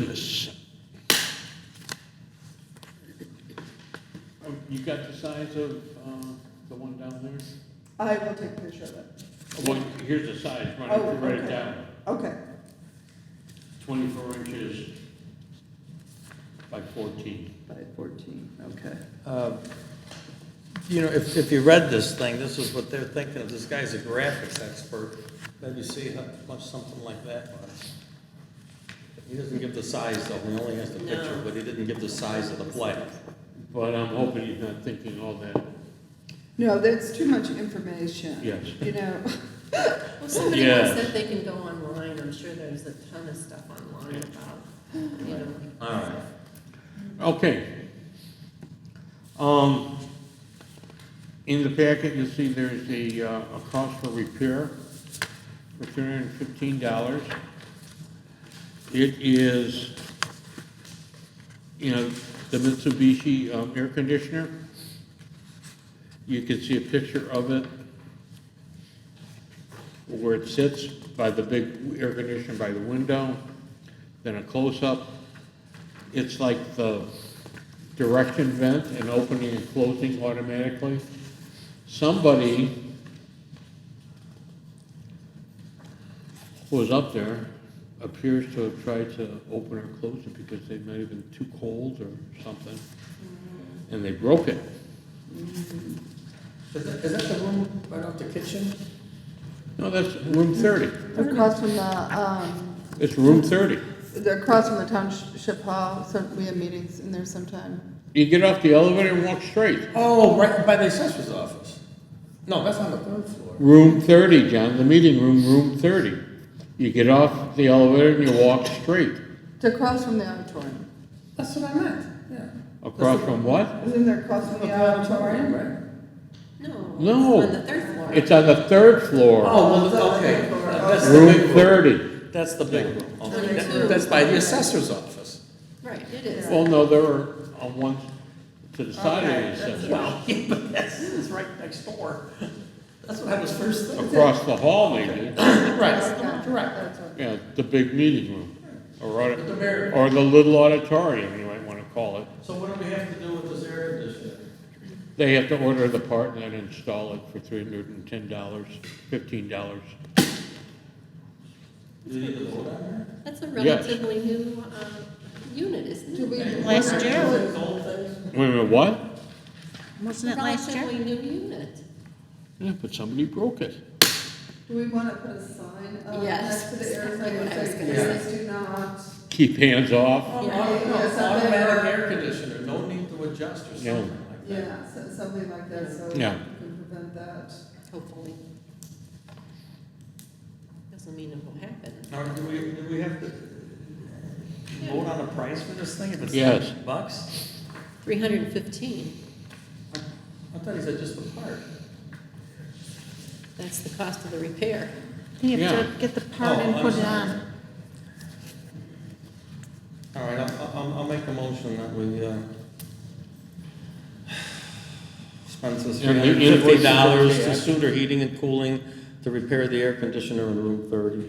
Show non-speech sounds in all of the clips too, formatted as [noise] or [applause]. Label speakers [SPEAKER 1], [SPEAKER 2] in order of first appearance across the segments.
[SPEAKER 1] business. Oh, You got the size of uh, the one down there?
[SPEAKER 2] I will take a picture of it.
[SPEAKER 1] Well, here's the size, run
[SPEAKER 2] Oh,
[SPEAKER 1] it, write it
[SPEAKER 2] okay.
[SPEAKER 1] down.
[SPEAKER 2] Okay,
[SPEAKER 1] Twenty-four inches by fourteen.
[SPEAKER 2] by fourteen, okay.
[SPEAKER 3] Uh, You know, if, if you read this thing, this is what they're thinking of. This guy's a graphics expert. Maybe see how much something like that was. He doesn't give the size though. He only has the picture, but he didn't give the size of the play.
[SPEAKER 1] But I'm hoping he's not thinking all that.
[SPEAKER 2] No, that's too much information.
[SPEAKER 1] Yes.
[SPEAKER 2] You know,
[SPEAKER 4] Well, somebody
[SPEAKER 1] Yeah.
[SPEAKER 4] wants that they can go online, I'm sure there's a ton of stuff online about, you know.
[SPEAKER 3] All right.
[SPEAKER 1] Okay. Um, in the packet, you'll see there's the, uh, a cost for repair for three hundred and fifteen dollars. It is, you know, the Mitsubishi, um, air conditioner. You can see a picture of it where it sits by the big air conditioner by the window, then a close-up. It's like the direction vent and opening and closing automatically. Somebody was up there appears to have tried to open or close it because they might have been too cold or something, and they broke it.
[SPEAKER 3] Is that, is that the room right off the kitchen?
[SPEAKER 1] No, that's room thirty.
[SPEAKER 2] they're across from the, um,
[SPEAKER 1] It's room thirty.
[SPEAKER 2] they're across from the township hall, so we have meetings in there sometime.
[SPEAKER 1] You get off the elevator and walk straight.
[SPEAKER 3] Oh, right by the assessor's office. No, that's on the third floor.
[SPEAKER 1] Room thirty, John, the meeting room, room thirty. You get off the elevator and you walk straight.
[SPEAKER 2] They're across from the auditorium.
[SPEAKER 3] That's what I meant, yeah.
[SPEAKER 1] Across from what?
[SPEAKER 2] Isn't there across from the auditorium?
[SPEAKER 3] right?
[SPEAKER 4] No.
[SPEAKER 1] No.
[SPEAKER 4] On the third floor.
[SPEAKER 1] It's on the third floor,
[SPEAKER 3] Oh, well, okay. That's the
[SPEAKER 1] room
[SPEAKER 3] big room.
[SPEAKER 1] thirty.
[SPEAKER 3] That's the big room. Okay,
[SPEAKER 4] Number
[SPEAKER 3] that-
[SPEAKER 4] two.
[SPEAKER 3] That's by the assessor's office.
[SPEAKER 4] Right, it is.
[SPEAKER 1] Well, no, there are uh, ones to the side
[SPEAKER 2] Okay,
[SPEAKER 1] of the assessor.
[SPEAKER 3] Well, [laughs] yeah, but that's, it's right next door. [laughs] That's what I was first thinking.
[SPEAKER 1] Across the hall, maybe,
[SPEAKER 3] Right,
[SPEAKER 2] Okay,
[SPEAKER 3] correct.
[SPEAKER 2] that's okay.
[SPEAKER 1] yeah, the big meeting room, or, audi-
[SPEAKER 3] The mayor-
[SPEAKER 1] or the little auditorium, you might wanna call it.
[SPEAKER 3] So what do we have to do with this air conditioner?
[SPEAKER 1] They have to order the part and then install it for three hundred and ten dollars, fifteen dollars.
[SPEAKER 3] Do you need to vote on
[SPEAKER 4] That's a
[SPEAKER 1] Yes.
[SPEAKER 4] relatively new, uh, unit, isn't
[SPEAKER 2] Do
[SPEAKER 4] it?
[SPEAKER 2] we?
[SPEAKER 5] Last year,
[SPEAKER 3] that? Old things?
[SPEAKER 1] Wait a minute, what?
[SPEAKER 5] wasn't it last year?
[SPEAKER 4] Relatively new unit.
[SPEAKER 1] Yeah, but somebody broke it.
[SPEAKER 2] Do we wanna put a sign up next
[SPEAKER 4] Yes,
[SPEAKER 2] to the air,
[SPEAKER 4] exactly what I was
[SPEAKER 2] like,
[SPEAKER 4] gonna
[SPEAKER 2] please do not,
[SPEAKER 1] Keep hands off,
[SPEAKER 3] Oh,
[SPEAKER 4] Yeah.
[SPEAKER 3] auto- no,
[SPEAKER 2] Yeah, something
[SPEAKER 3] Automatic
[SPEAKER 2] where-
[SPEAKER 3] air conditioner, no need to adjust or
[SPEAKER 1] No.
[SPEAKER 3] something like that.
[SPEAKER 2] yeah, so- something like that, so we
[SPEAKER 1] Yeah.
[SPEAKER 2] can prevent that.
[SPEAKER 4] Hopefully. Doesn't mean it won't happen.
[SPEAKER 3] Now, do we, do we have to vote on a price for this thing if it's
[SPEAKER 1] Yes.
[SPEAKER 3] ten bucks?
[SPEAKER 4] Three hundred and fifteen,
[SPEAKER 3] I I thought he said just the part.
[SPEAKER 4] that's the cost of the repair.
[SPEAKER 5] You have
[SPEAKER 1] Yeah.
[SPEAKER 5] to get the part
[SPEAKER 3] Oh,
[SPEAKER 5] and
[SPEAKER 3] I'm
[SPEAKER 5] put it
[SPEAKER 3] sorry.
[SPEAKER 5] on.
[SPEAKER 3] All right, I'll, I'll, I'll make a motion that we, uh, spend this three
[SPEAKER 1] And the
[SPEAKER 3] hundred and fifty dollars
[SPEAKER 1] invoices are
[SPEAKER 3] to
[SPEAKER 1] paid.
[SPEAKER 3] Suter Heating and Cooling to repair the air conditioner in room thirty.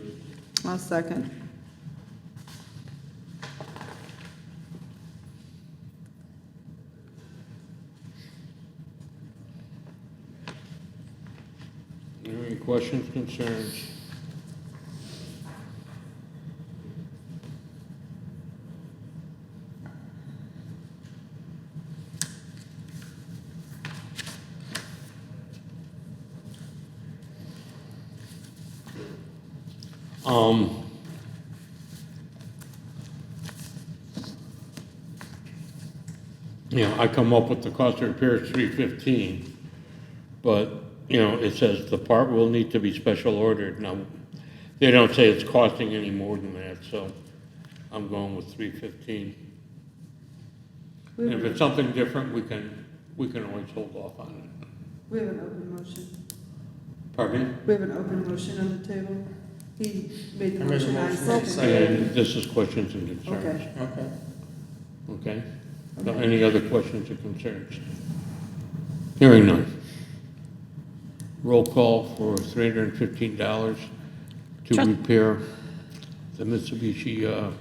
[SPEAKER 2] One second.
[SPEAKER 1] any questions, concerns? Um. You know, I come up with the cost of repairs three fifteen, but, you know, it says the part will need to be special ordered. Now, they don't say it's costing any more than that, so I'm going with three fifteen. And if it's something different, we can, we can always hold off on it.
[SPEAKER 2] We have an open motion.
[SPEAKER 1] Pardon me?
[SPEAKER 2] We have an open motion on the table. He made
[SPEAKER 3] I
[SPEAKER 2] the
[SPEAKER 3] made a
[SPEAKER 2] motion, I
[SPEAKER 3] motion,
[SPEAKER 2] seconded.
[SPEAKER 3] second.
[SPEAKER 1] And this is questions and concerns,
[SPEAKER 2] Okay.
[SPEAKER 3] Okay.
[SPEAKER 1] okay? So Any other questions or concerns? Hearing none. Roll call for three hundred and fifteen dollars to
[SPEAKER 5] Trust-
[SPEAKER 1] repair the Mitsubishi, uh,